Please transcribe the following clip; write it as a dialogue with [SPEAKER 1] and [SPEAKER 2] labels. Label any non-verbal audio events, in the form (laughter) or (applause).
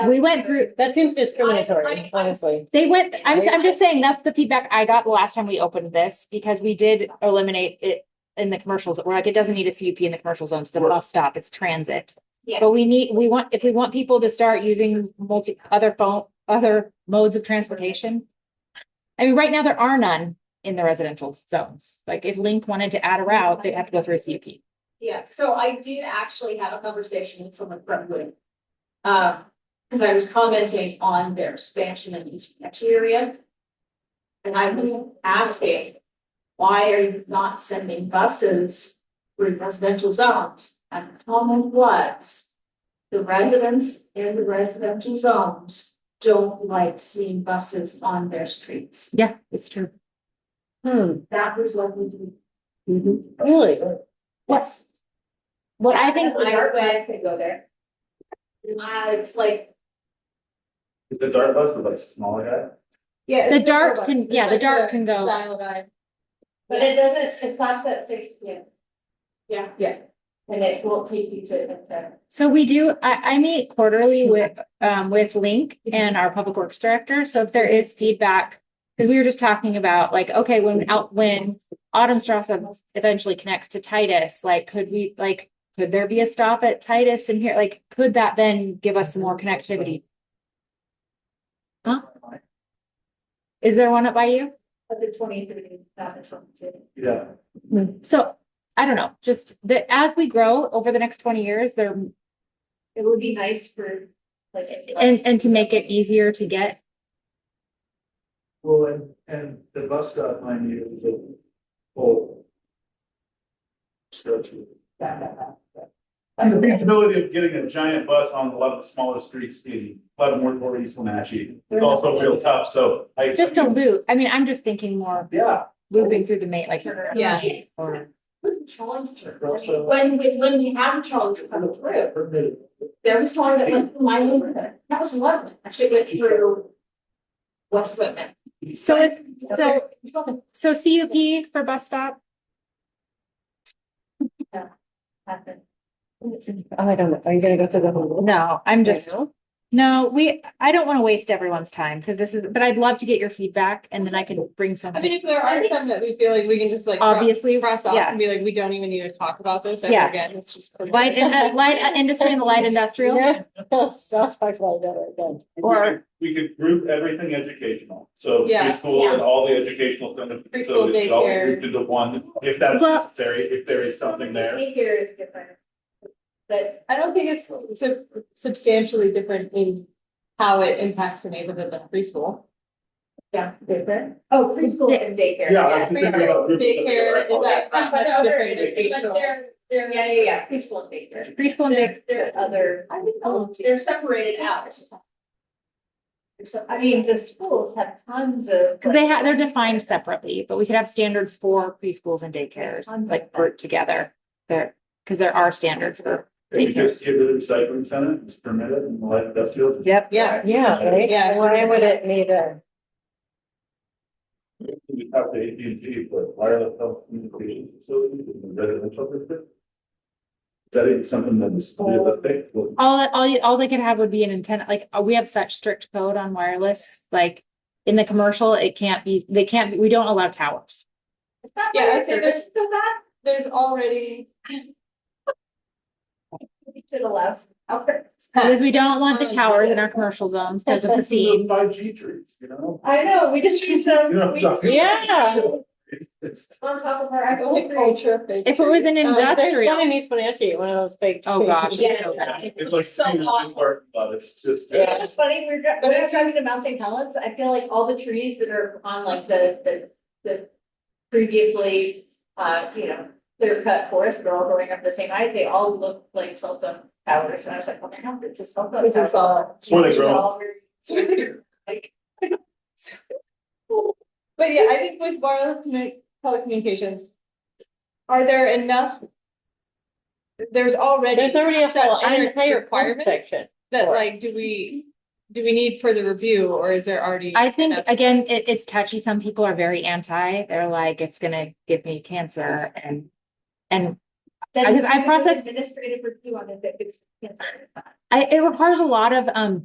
[SPEAKER 1] We went group,
[SPEAKER 2] That seems discriminatory, honestly.
[SPEAKER 1] they went, I'm, I'm just saying, that's the feedback I got the last time we opened this, because we did eliminate it in the commercials, we're like, it doesn't need a CUP in the commercial zones, it's a bus stop, it's transit.
[SPEAKER 3] Yeah.
[SPEAKER 1] But we need, we want, if we want people to start using multi, other phone, other modes of transportation. I mean, right now, there are none in the residential zones, like if Link wanted to add a route, they'd have to go through a CUP.
[SPEAKER 3] Yeah, so I did actually have a conversation with someone from Wood. Uh, because I was commenting on their expansion in East area. And I was asking, why are you not sending buses through residential zones? And the comment was, the residents in the residential zones don't like seeing buses on their streets.
[SPEAKER 1] Yeah, it's true.
[SPEAKER 2] Hmm,
[SPEAKER 3] That was what we did.
[SPEAKER 1] Mm-hmm.
[SPEAKER 2] really?
[SPEAKER 3] Yes.
[SPEAKER 1] What I think,
[SPEAKER 3] My art bag could go there. Uh, it's like
[SPEAKER 4] Is the dart bus the like smaller guy?
[SPEAKER 5] Yeah.
[SPEAKER 1] the
[SPEAKER 5] it's
[SPEAKER 1] dart
[SPEAKER 5] like
[SPEAKER 1] can, yeah, the dart can
[SPEAKER 5] a
[SPEAKER 1] go,
[SPEAKER 5] Style guide.
[SPEAKER 3] But it doesn't, it stops at six P M. Yeah.
[SPEAKER 5] Yeah.
[SPEAKER 3] And it won't take you to the.
[SPEAKER 1] so we do, I, I meet quarterly with, um, with Link and our public works director, so if there is feedback. Cause we were just talking about like, okay, when out, when Autumn Strasse eventually connects to Titus, like, could we, like, could there be a stop at Titus in here, like, could that then give us some more connectivity? Huh? Is there one up by you?
[SPEAKER 3] Of the twenty three, not the twenty two.
[SPEAKER 4] Yeah.
[SPEAKER 1] So, I don't know, just that as we grow over the next twenty years, there
[SPEAKER 3] It would be nice for like.
[SPEAKER 1] And, and to make it easier to get,
[SPEAKER 4] Well, and, and the bus stop, mind you, is a whole stretch. of- And the feasibility of getting a giant bus on a lot of the smaller streets in Leavenworth or East Wenatchee is also real tough, so I.
[SPEAKER 1] just a loop. I mean, I'm just thinking more
[SPEAKER 4] Yeah.
[SPEAKER 1] looping through the main, like.
[SPEAKER 5] Yeah.
[SPEAKER 1] Or,
[SPEAKER 3] When Charles turned, I
[SPEAKER 4] Also-
[SPEAKER 3] mean, when, when, when we had Charles come through, there was one that went through my neighborhood, that was lovely, actually went through. What's it meant?
[SPEAKER 1] so if, so, so CUP for bus stop,
[SPEAKER 2] I don't know. Are you gonna go through the whole?
[SPEAKER 1] no, I'm just, no, we, I don't want to waste everyone's time because this is, but I'd love to get your feedback and then I can bring
[SPEAKER 5] I mean,
[SPEAKER 1] something.
[SPEAKER 5] if there are some that we feel like we can just like. cross-
[SPEAKER 1] Obviously,
[SPEAKER 5] Cross off
[SPEAKER 1] yeah,
[SPEAKER 5] and be like, we don't even need to talk about this ever
[SPEAKER 1] Yeah.
[SPEAKER 5] again. It's just.
[SPEAKER 1] light, in the light uh, industry and the light industrial,
[SPEAKER 2] Yeah.
[SPEAKER 5] (laughs)
[SPEAKER 2] Sounds like well done.
[SPEAKER 1] Or-
[SPEAKER 4] We could group everything educational, so
[SPEAKER 5] Yeah,
[SPEAKER 4] preschool and all the educational stuff. so
[SPEAKER 5] Preschool,
[SPEAKER 4] it's all
[SPEAKER 5] daycare.
[SPEAKER 4] grouped Into one, if that's
[SPEAKER 1] Well-
[SPEAKER 4] necessary, if there is something there.
[SPEAKER 3] Daycare is different. But
[SPEAKER 5] I don't think it's sub- substantially different in how it impacts the neighborhood than preschool.
[SPEAKER 3] yeah, different. Oh, preschool and daycare.
[SPEAKER 4] Yeah,
[SPEAKER 3] yes.
[SPEAKER 4] I was thinking about groups of-
[SPEAKER 5] Daycare
[SPEAKER 4] oh,
[SPEAKER 5] is that-
[SPEAKER 3] But
[SPEAKER 5] not much
[SPEAKER 3] they're,
[SPEAKER 5] different than
[SPEAKER 3] but
[SPEAKER 5] preschool.
[SPEAKER 3] they're, they're, yeah, yeah, yeah, preschool and daycare.
[SPEAKER 1] preschool and
[SPEAKER 3] They're,
[SPEAKER 1] day,
[SPEAKER 3] they're other,
[SPEAKER 5] I think
[SPEAKER 3] Oh, they're separated out. So, I mean, the schools have tons of.
[SPEAKER 1] because they have, they're defined separately, but we could have standards for preschools and daycares, like grouped together. There, because there are standards for
[SPEAKER 4] If we just get rid of recycling center, it's permitted and light industrial.
[SPEAKER 1] Yep.
[SPEAKER 5] Yeah.
[SPEAKER 2] Yeah, right?
[SPEAKER 5] Yeah.
[SPEAKER 2] Why would it need a?
[SPEAKER 4] We have the AT&T for wireless telecommunications facilities in the residential district. Is that even something that is realistic? Well,
[SPEAKER 1] All, all, you- all they could have would be an antenna, like, uh, we have such strict code on wireless, like, in the commercial, it can't be, they can't, be we don't allow towers.
[SPEAKER 5] Yeah, I'd say there's-
[SPEAKER 3] Still that,
[SPEAKER 5] There's already.
[SPEAKER 3] we should allow.
[SPEAKER 1] Because we don't want the
[SPEAKER 5] Um,
[SPEAKER 1] towers in our commercial zones because of the feed.
[SPEAKER 4] Five G trees, you know?
[SPEAKER 3] I know, we just need some.
[SPEAKER 4] You know what I'm talking about?
[SPEAKER 1] Yeah.
[SPEAKER 4] It's- it's-
[SPEAKER 3] On top of our. apple tree.
[SPEAKER 5] Ultra fake.
[SPEAKER 1] If it was an
[SPEAKER 2] Um, There's
[SPEAKER 1] industrial-
[SPEAKER 2] one in East Wenatchee, one of those big.
[SPEAKER 1] Oh, gosh.
[SPEAKER 5] (laughs)
[SPEAKER 2] Yeah.
[SPEAKER 1] so bad.
[SPEAKER 3] It's
[SPEAKER 4] It's like.
[SPEAKER 3] so
[SPEAKER 4] seeing a
[SPEAKER 3] awful.
[SPEAKER 4] park, But it's just.
[SPEAKER 3] It's
[SPEAKER 2] Yeah.
[SPEAKER 3] just funny, we're, dri- when I was driving to Mount St. Helens, I feel like all the trees that are on like the, the, the previously, uh, you know, clear cut forest, they're all growing up the same height, they all look like cell phone towers, and I was like, what the hell, it's a cell phone
[SPEAKER 5] It's a
[SPEAKER 3] tower.
[SPEAKER 4] It's where they grow.
[SPEAKER 3] They're all very- (laughs)
[SPEAKER 5] But yeah, I think with wireless commu- telecommunications, are there enough? There's already.
[SPEAKER 2] There's already a whole
[SPEAKER 5] such
[SPEAKER 2] entire
[SPEAKER 5] requirements
[SPEAKER 2] section.
[SPEAKER 5] That
[SPEAKER 2] for it.
[SPEAKER 5] like, do we, do we need further review or is there already?
[SPEAKER 1] I think, again, it, it's touchy. Some people are very anti. They're like, it's gonna give me cancer and, and
[SPEAKER 3] Then
[SPEAKER 1] Because (laughs) I
[SPEAKER 3] you can do
[SPEAKER 1] process-
[SPEAKER 3] Administrative review on it, that gives-
[SPEAKER 1] I, it requires a lot of, um,